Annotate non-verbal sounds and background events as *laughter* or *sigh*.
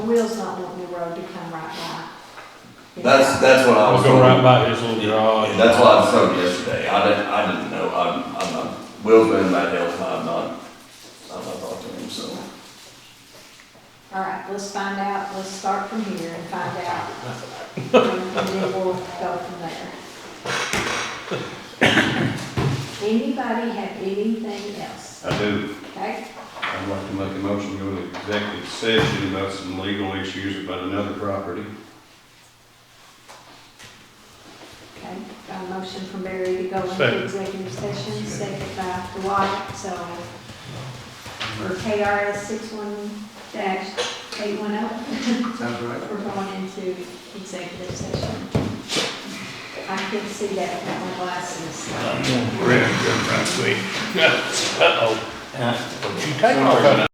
Will's not wanting the road to come right by. That's, that's what I I'll was. go right told. by his little garage. Yeah, That's what I was told yesterday, I didn't, I didn't know, I'm, I'm, not- Will's been back there, I'm not, I'm not talking to him, so. All right, let's find out, let's start from here and find out. And then we'll go from there. Anybody have anything else? I do, Okay, I'd like to make a motion to go to executive session about some legal issues about another property. okay. Got a motion from Barry to go into Second. executive session, second by Dwight, so. For KRS six one dash eight one oh, Sounds right. we're going into executive session. I can see that with my glasses. *laughs* Rick, right quick. Uh-oh. Would you take off?